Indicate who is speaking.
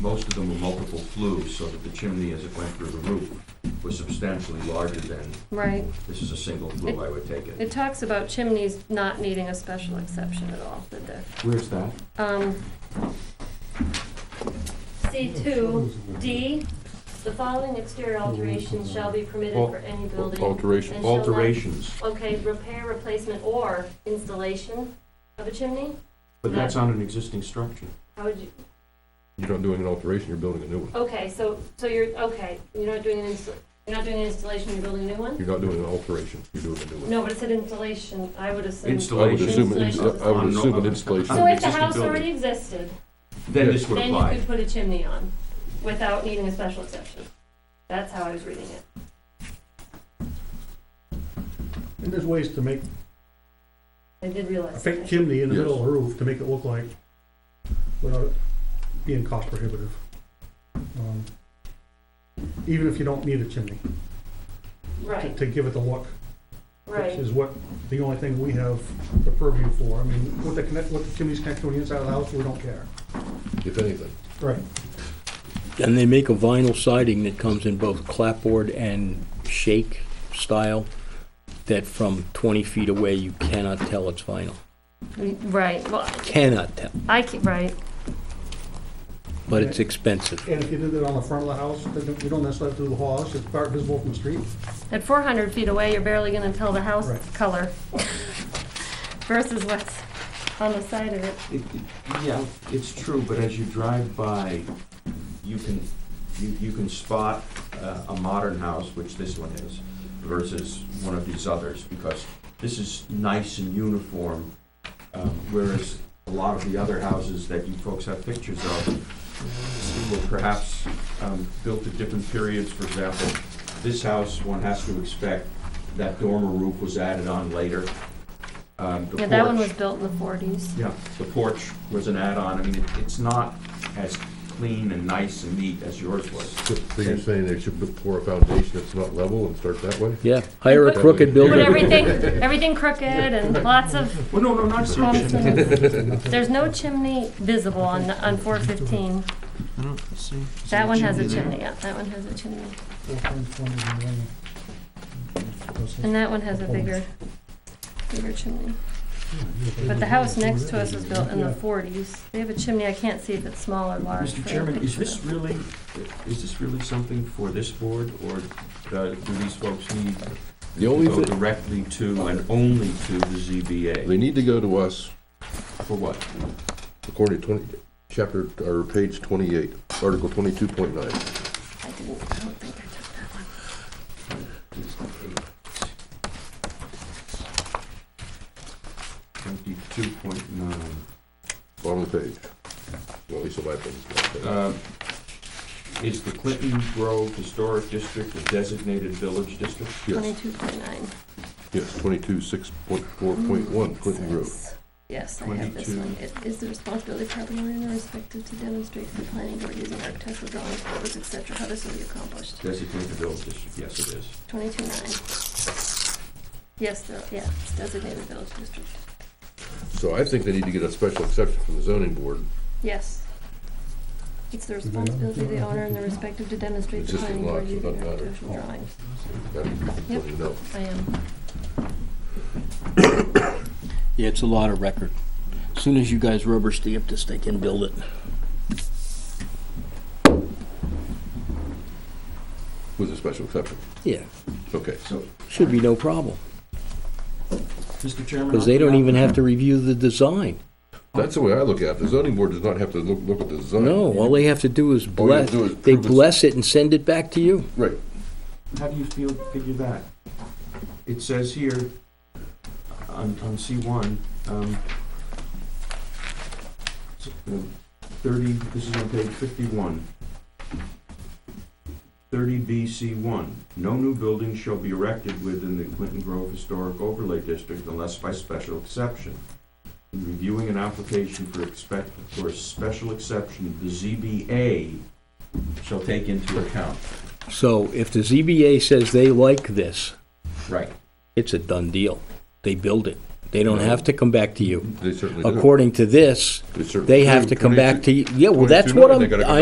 Speaker 1: most of them were multiple flues, so that the chimney, as it went through the roof, was substantially larger than,
Speaker 2: Right.
Speaker 1: this is a single flue, I would take it.
Speaker 2: It talks about chimneys not needing a special exception at all, did there?
Speaker 3: Where's that?
Speaker 2: Um, C two, D, the following exterior alterations shall be permitted for any building.
Speaker 1: Oh,
Speaker 4: Alteration-
Speaker 2: and shall not-"
Speaker 3: Alterations,
Speaker 2: Okay, repair, replacement, or installation of a chimney?
Speaker 3: but that's on an existing structure.
Speaker 2: How would you,
Speaker 4: You're not doing an alteration, you're building a new one.
Speaker 2: okay, so, so you're, okay, you're not doing an insta, you're not doing an installation, you're building a new one?
Speaker 4: You're not doing an alteration, you're doing a new one.
Speaker 2: No, but it said installation, I would assume.
Speaker 4: I would
Speaker 1: Installation.
Speaker 4: assume, an
Speaker 2: Installation.
Speaker 4: ins- I would assume an installation.
Speaker 2: So if the
Speaker 1: Existing
Speaker 2: house
Speaker 1: building.
Speaker 2: already existed,
Speaker 1: Then this would
Speaker 2: Then you
Speaker 1: apply.
Speaker 2: could put a chimney on without needing a special exception. That's how I was reading it.
Speaker 5: And there's ways to make
Speaker 2: I did
Speaker 5: a
Speaker 2: realize.
Speaker 5: fake
Speaker 2: that.
Speaker 5: chimney in the
Speaker 4: Yes.
Speaker 5: middle of a roof to make it look like, without it being cost prohibitive. Um, Even if you don't need a chimney, to-
Speaker 2: Right,
Speaker 5: to give it the look, which
Speaker 2: right.
Speaker 5: is what, the only thing we have the purview for. I mean, what the connect, what the chimney's connected to the inside of the house, we don't care.
Speaker 4: If anything,
Speaker 5: Right.
Speaker 6: And they make a vinyl siding that comes in both clapboard and shake style, that from 20 feet away, you cannot tell it's vinyl.
Speaker 2: Right, well,
Speaker 6: Cannot tell,
Speaker 2: I, ca- right,
Speaker 6: but it's expensive.
Speaker 5: And if you did it on the front of the house, then you don't necessarily have to do the whole house, it's part visible from the street.
Speaker 2: at four hundred feet away, you're barely gonna tell the house
Speaker 5: Right.
Speaker 2: color versus what's on the side of it.
Speaker 1: It- it- Yeah, it's true, but as you drive by, you can, you, you can spot uh, a modern house, which this one is, versus one of these others, because this is nice and uniform, um, whereas a lot of the other houses that you folks have pictures of were perhaps um, built at different periods, for example. This house, one has to expect that dormer roof was added on later. Um, the
Speaker 2: Yeah, that one
Speaker 1: porch-
Speaker 2: was built in the forties.
Speaker 1: yeah, the porch was an add-on, I mean, it- it's not as clean and nice and neat as yours was.
Speaker 4: so so you're saying they should pour a foundation that's not level and start that way?
Speaker 6: Yeah, hire a crooked
Speaker 2: But
Speaker 6: builder.
Speaker 2: everything, everything crooked and lots of
Speaker 1: Well, no, no, not so.
Speaker 2: bumps and- There's no chimney visible on, on four fifteen.
Speaker 7: I don't see. Is there
Speaker 2: That one has a
Speaker 7: there?
Speaker 2: chimney, yeah, that one has a chimney. And that one has a bigger, bigger chimney. But the house next to us was built in the forties. They have a chimney, I can't see if it's small or large.
Speaker 1: Mr. Chairman, is this really, is this really something for this board, or uh, do these folks need
Speaker 4: The
Speaker 1: to
Speaker 4: only
Speaker 1: go
Speaker 4: thing,
Speaker 1: directly to and only to the ZBA?
Speaker 4: they need to go to us
Speaker 1: For what?
Speaker 4: according to twenty, chapter, or page twenty-eight, article twenty-two point nine.
Speaker 2: I didn't, I don't think I took that one.
Speaker 1: Twenty-two point nine.
Speaker 4: Bottom of the page. Well, at least on my page.
Speaker 1: Um, Is the Clinton Grove Historic District a designated village district?
Speaker 4: Yes,
Speaker 2: Twenty-two point nine. Mm,
Speaker 4: yes, twenty-two, six point four point one, Clinton Road.
Speaker 2: Yes, I have this
Speaker 1: 22.
Speaker 2: one. It is the responsibility of property owner respected to demonstrate the planning board using architectural drawings, photos, et cetera, how this will be accomplished.
Speaker 1: Designated village district, yes, it is.
Speaker 2: Twenty-two nine. Yes, the, yeah, it's designated village district.
Speaker 4: So I think they need to get a special exception from the zoning board,
Speaker 2: Yes. It's the responsibility of the owner and the respective to demonstrate the
Speaker 4: Existing
Speaker 2: planning board
Speaker 4: lots, it
Speaker 2: using
Speaker 4: doesn't matter.
Speaker 2: architectural drawings.
Speaker 4: and let you know.
Speaker 2: I am.
Speaker 6: Yeah, it's a lot of record. As Soon as you guys rubber stamp this, they can build it.
Speaker 4: With a special exception,
Speaker 6: Yeah,
Speaker 4: okay.
Speaker 1: So,
Speaker 6: should be no problem,
Speaker 1: Mr. Chairman.
Speaker 6: because they don't even have to review the design.
Speaker 4: That's the way I look at it. The zoning board does not have to look, look at the design.
Speaker 6: No, all they have to do is
Speaker 4: All you have to
Speaker 6: bless,
Speaker 4: do is
Speaker 6: they
Speaker 4: prove it's-
Speaker 6: bless it and send it back to you.
Speaker 4: Right,
Speaker 1: How do you feel, figure that? It says here, on, on C one, um, s- uh, thirty, this is on page fifty-one. Thirty B C one, no new building shall be erected within the Clinton Grove Historic Overlay District unless by special exception. In reviewing an application for expect, for a special exception, the ZBA shall take into account.
Speaker 6: So if the ZBA says they like this,
Speaker 1: Right.
Speaker 6: it's a done deal. They build it. They don't have to come back to you.
Speaker 4: they certainly do.
Speaker 6: According to this,
Speaker 4: They certainly
Speaker 6: they have
Speaker 4: do.
Speaker 6: to come back to,
Speaker 4: 22
Speaker 6: you. yeah, well, that's what
Speaker 4: 22, they
Speaker 6: I'm,
Speaker 4: gotta come
Speaker 6: I